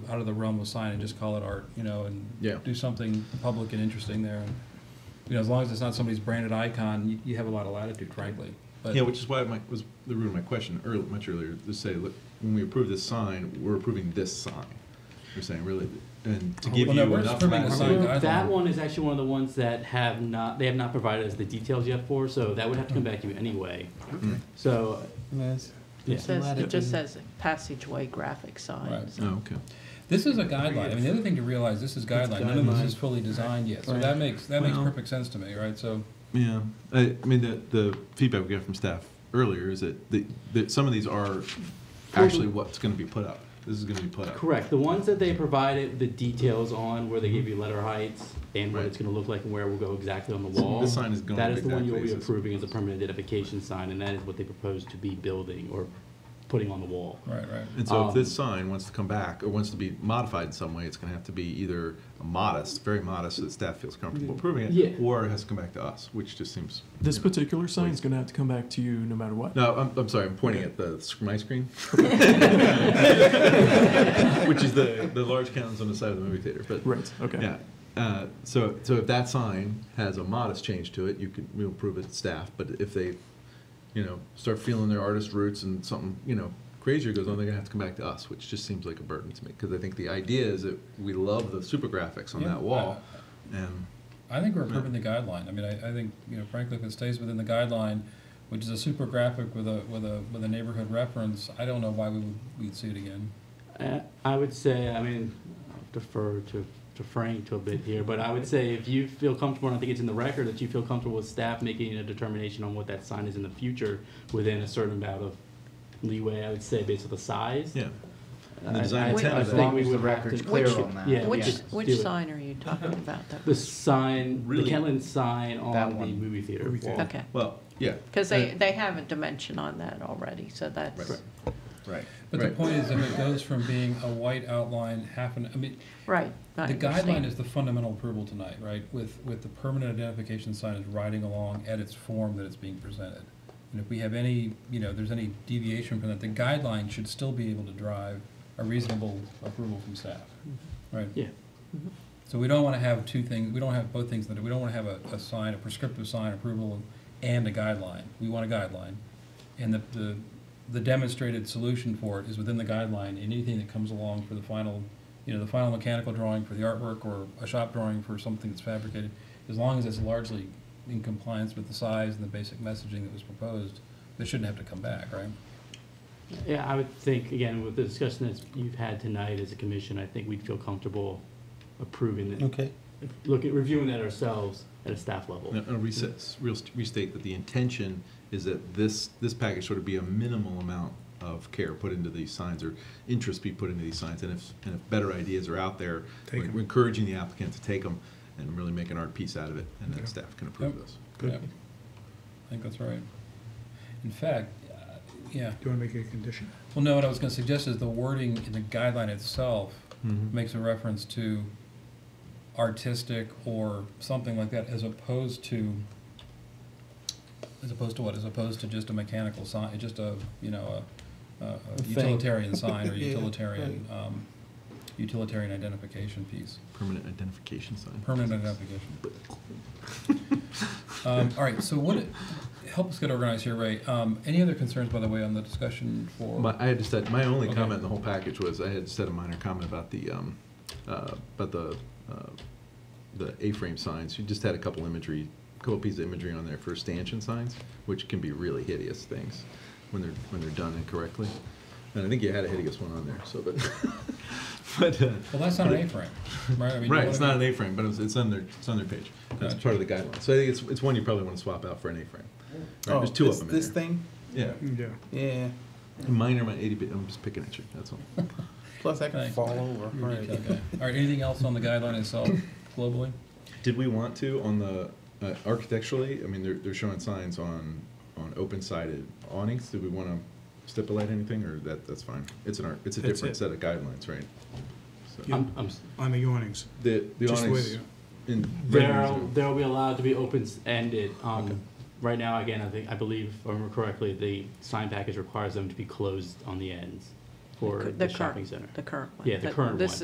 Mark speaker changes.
Speaker 1: out of the realm of sign and just call it art, you know, and
Speaker 2: Yeah.
Speaker 1: do something public and interesting there. And, you know, as long as it's not somebody's branded icon, you, you have a lot of latitude, frankly. But
Speaker 2: Yeah, which is why my, was the root of my question earlier, much earlier, to say, look, when we approve this sign, we're approving this sign. We're saying really, and to give
Speaker 1: Well,
Speaker 2: you
Speaker 1: no, we're just
Speaker 2: enough.
Speaker 1: approving the
Speaker 2: latitude-
Speaker 1: sign
Speaker 3: Well,
Speaker 1: guideline.
Speaker 3: That one is actually one of the ones that have not, they have not provided us the details yet for, so that would have to come back to you anyway. So,
Speaker 4: Liz?
Speaker 3: yeah.
Speaker 5: It says, it just says passageway graphic signs.
Speaker 2: Oh, okay.
Speaker 1: This is a guideline. I mean, the other thing to realize, this is guideline. None of this is
Speaker 4: guideline.
Speaker 1: fully designed yet. So
Speaker 4: Right.
Speaker 1: that makes, that makes
Speaker 2: Well-
Speaker 1: perfect sense to me, right? So,
Speaker 2: Yeah, I, I mean, the, the feedback we got from staff earlier is that, the, that some of these are actually what's gonna be put up. This is gonna be put up.
Speaker 3: Correct, the ones that they provided the details on, where they gave you letter heights and what
Speaker 2: Right.
Speaker 3: it's gonna look like and where it will go exactly on the
Speaker 2: So
Speaker 3: wall.
Speaker 2: this sign is going
Speaker 3: That is the one
Speaker 2: exactly
Speaker 3: you'll be
Speaker 2: as this-
Speaker 3: approving as a permanent identification sign, and that is what they propose to be building or putting on the wall.
Speaker 1: right, right.
Speaker 2: And so if this
Speaker 3: Um,
Speaker 2: sign wants to come back or wants to be modified in some way, it's gonna have to be either modest, very modest, so that staff feels comfortable approving it.
Speaker 3: Yeah.
Speaker 2: Or it has to come back to us, which just seems.
Speaker 4: This
Speaker 2: you know.
Speaker 4: particular sign's gonna have to come back to you no matter what.
Speaker 2: No, I'm, I'm sorry, I'm pointing at the, sc- my screen. Which is the, the large cannons on the side of the movie theater, but.
Speaker 4: Right, okay.
Speaker 2: Yeah, uh, so, so if that sign has a modest change to it, you can, we'll approve it to staff, but if they, you know, start feeling their artist roots and something, you know, crazier goes on, they're gonna have to come back to us, which just seems like a burden to me, because I think the idea is that we love the super graphics on
Speaker 1: Yeah.
Speaker 2: that wall, and,
Speaker 1: I think we're approving the guideline. I mean, I, I think, you know, frankly, if it stays within the guideline, which is a super graphic with a, with a, with a neighborhood reference, I don't know why we would, we'd see it again.
Speaker 3: Uh, I would say, I mean, I'll defer to, to Frank to a bit here, but I would say if you feel comfortable, and I think it's in the record, that you feel comfortable with staff making a determination on what that sign is in the future within a certain amount of leeway, I would say, based on the size.
Speaker 2: yeah. And the
Speaker 3: I-
Speaker 2: design
Speaker 3: I- I
Speaker 2: intent of
Speaker 3: think
Speaker 2: it.
Speaker 3: we
Speaker 6: As long as the
Speaker 3: would have to-
Speaker 6: record's clear
Speaker 3: which-
Speaker 6: on that.
Speaker 3: yeah,
Speaker 6: Which-
Speaker 3: yes,
Speaker 5: Which,
Speaker 3: do
Speaker 5: which
Speaker 3: it.
Speaker 5: sign are you talking about though?
Speaker 3: The sign, the
Speaker 2: Really?
Speaker 3: Kentland sign on
Speaker 6: That
Speaker 3: the
Speaker 6: one.
Speaker 3: movie theater
Speaker 4: Movie
Speaker 3: wall.
Speaker 4: theater.
Speaker 5: Okay,
Speaker 2: Well, yeah.
Speaker 5: because they,
Speaker 2: Uh,
Speaker 5: they have a dimension on that already, so that's,
Speaker 2: Right. Right.
Speaker 1: But the
Speaker 2: Right.
Speaker 1: point is, if it goes from being a white outline, half an, I mean,
Speaker 5: right. I
Speaker 1: The guideline
Speaker 5: understand.
Speaker 1: is the fundamental approval tonight, right? With, with the permanent identification sign is riding along at its form that it's being presented. And if we have any, you know, there's any deviation from that, the guideline should still be able to drive a reasonable approval from staff, right?
Speaker 3: Yeah,
Speaker 1: So we don't want to have two things, we don't have both things, that we don't want to have a, a sign, a prescriptive sign approval and a guideline. We want a guideline. And the, the, the demonstrated solution for it is within the guideline, and anything that comes along for the final, you know, the final mechanical drawing for the artwork or a shop drawing for something that's fabricated, as long as it's largely in compliance with the size and the basic messaging that was proposed, they shouldn't have to come back, right?
Speaker 3: yeah, I would think, again, with the discussion that you've had tonight as a commission, I think we'd feel comfortable approving it.
Speaker 4: Okay.
Speaker 3: Look at reviewing that ourselves at a staff level.
Speaker 2: No, no, recess, real- restate that the intention is that this, this package sort of be a minimal amount of care put into these signs or interest be put into these signs, and if, and if better ideas are out there, we're we're encouraging the applicant to take them and really make an art piece out of it, and then staff can approve
Speaker 1: Yep.
Speaker 2: this.
Speaker 1: Yeah. I think that's right. In fact, uh, yeah.
Speaker 7: Do you want to make it a condition?
Speaker 1: Well, no, what I was gonna suggest is the wording in the guideline itself
Speaker 2: Mhm.
Speaker 1: makes a reference to artistic or something like that, as opposed to, as opposed to what, as opposed to just a mechanical sign, just a, you know, a, a- a
Speaker 4: thing.
Speaker 1: utilitarian sign or
Speaker 4: Yeah,
Speaker 1: utilitarian, um, utilitarian identification piece,
Speaker 2: Permanent identification sign.
Speaker 1: permanent identification. Um, all right, so what, help us get organized here, Ray, um, any other concerns, by the way, on the discussion for?
Speaker 2: My, I had just said, my only
Speaker 1: Okay.
Speaker 2: comment in the whole package was, I had said a minor comment about the, um, uh, about the, uh, the A-frame signs. You just had a couple imagery, couple pieces of imagery on there for stanchion signs, which can be really hideous things when they're, when they're done incorrectly. And I think you had a hideous one on there, so, but, but, uh,
Speaker 1: Well, that's not an A-frame, right? I mean, you
Speaker 2: right,
Speaker 1: know
Speaker 2: it's
Speaker 1: what I
Speaker 2: not an
Speaker 1: mean?
Speaker 2: A-frame, but it's, it's on their, it's on their page. That's
Speaker 1: Gotcha.
Speaker 2: part of the guideline. So I think it's, it's one you probably want to swap out for an A-frame.
Speaker 1: Oh,
Speaker 2: Right, There's two of them in
Speaker 4: Oh, This
Speaker 2: there.
Speaker 4: thing?
Speaker 2: Yeah,
Speaker 7: Yeah.
Speaker 4: Yeah.
Speaker 2: minor, my eighty bit, I'm just picking at you, that's all.
Speaker 4: Plus I can
Speaker 1: Thanks.
Speaker 4: fall over. All right.
Speaker 1: Okay. All right, anything else on the guideline itself globally?
Speaker 2: Did we want to on the, uh, architecturally, I mean, they're, they're showing signs on, on open-sided awnings, do we wanna stipulate anything, or that, that's fine? It's an, ar- it's a
Speaker 7: That's
Speaker 2: different
Speaker 7: it.
Speaker 2: set of guidelines, right? So-
Speaker 7: Yeah.
Speaker 4: Um,
Speaker 3: I'm, I'm, s-
Speaker 7: On the awnings.
Speaker 2: The, the
Speaker 7: Just
Speaker 2: awnings
Speaker 7: with
Speaker 2: in.
Speaker 3: There'll, there'll be allowed to be open-ended. Um, right now, again, I think, I believe, if I remember correctly, the sign package requires them to be closed on the ends for the
Speaker 5: cur- current-
Speaker 3: shopping center.
Speaker 5: The current one.
Speaker 3: Yeah, the
Speaker 5: But
Speaker 3: current
Speaker 5: This
Speaker 3: one.